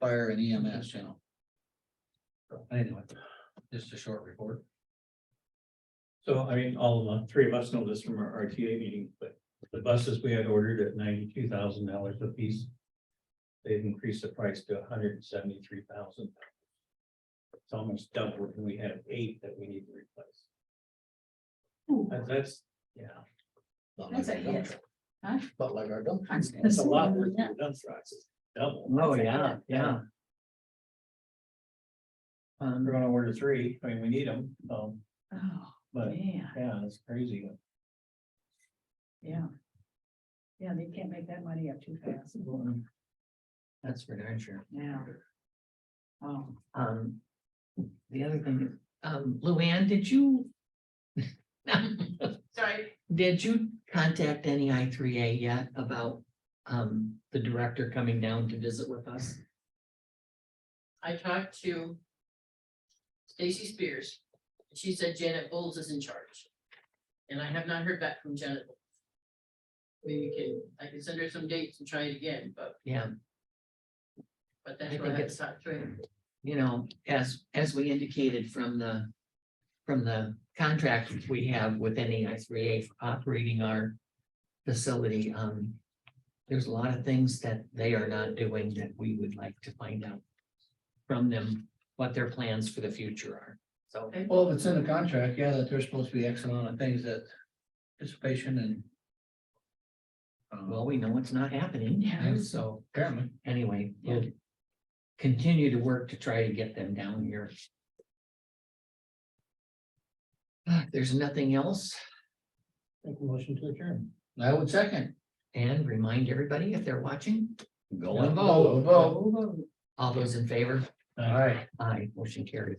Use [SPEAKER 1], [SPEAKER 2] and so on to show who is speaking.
[SPEAKER 1] fire and EMS channel. So, Anyway, just a short report.
[SPEAKER 2] So I mean, all of the three of us know this from our RTA meeting, but the buses we had ordered at ninety-two thousand dollars a piece. They've increased the price to $173,000. It's almost double, and we have eight that we need to replace.
[SPEAKER 3] Ooh,
[SPEAKER 2] That- That's, yeah,
[SPEAKER 1] Not like
[SPEAKER 3] That's a
[SPEAKER 1] our dump
[SPEAKER 3] hit.
[SPEAKER 1] truck. Not like our dump.
[SPEAKER 3] I
[SPEAKER 1] truck.
[SPEAKER 3] was gonna
[SPEAKER 2] that's a
[SPEAKER 3] say,
[SPEAKER 2] lot worth
[SPEAKER 3] yeah.
[SPEAKER 2] the dump trucks, it's double.
[SPEAKER 4] Oh, yeah, yeah.
[SPEAKER 2] We're
[SPEAKER 4] Um,
[SPEAKER 2] gonna order three, I mean, we need them, um,
[SPEAKER 3] Oh,
[SPEAKER 2] but
[SPEAKER 3] man,
[SPEAKER 2] yeah, it's crazy.
[SPEAKER 3] yeah. Yeah, they can't make that money up too fast.
[SPEAKER 4] that's for darn sure.
[SPEAKER 3] Yeah. Oh,
[SPEAKER 4] Um, the other thing, um, Luann, did you? Sorry. Did you contact any I three A yet about, um, the director coming down to visit with us?
[SPEAKER 5] I talked to Stacy Spears. and She said Janet Bowles is in charge. And I have not heard back from Janet. Bowles. Maybe we can, I can send her some dates and try it again, but,
[SPEAKER 4] Yeah,
[SPEAKER 5] but
[SPEAKER 4] I
[SPEAKER 5] that's what
[SPEAKER 4] think
[SPEAKER 5] I have
[SPEAKER 4] it's-
[SPEAKER 5] to talk to her.
[SPEAKER 4] you know, as, as we indicated from the, from the contract we have with any I three A operating our facility, um, there's a lot of things that they are not doing that we would like to find out from them, what their plans for the future are. So,
[SPEAKER 5] Okay.
[SPEAKER 1] Well, if it's in the contract, yeah, that there's supposed to be X amount of things that participation and. um,
[SPEAKER 4] well, we know it's not happening.
[SPEAKER 3] Yeah.
[SPEAKER 4] So
[SPEAKER 1] Apparently,
[SPEAKER 4] anyway, we'll continue to work to try to get them down here. Ah, if There's nothing else.
[SPEAKER 2] Make a motion to adjourn.
[SPEAKER 1] I would second.
[SPEAKER 4] And remind everybody if they're watching,
[SPEAKER 1] Go and vote.
[SPEAKER 4] all those in favor,
[SPEAKER 1] All right.
[SPEAKER 4] aye, motion carried.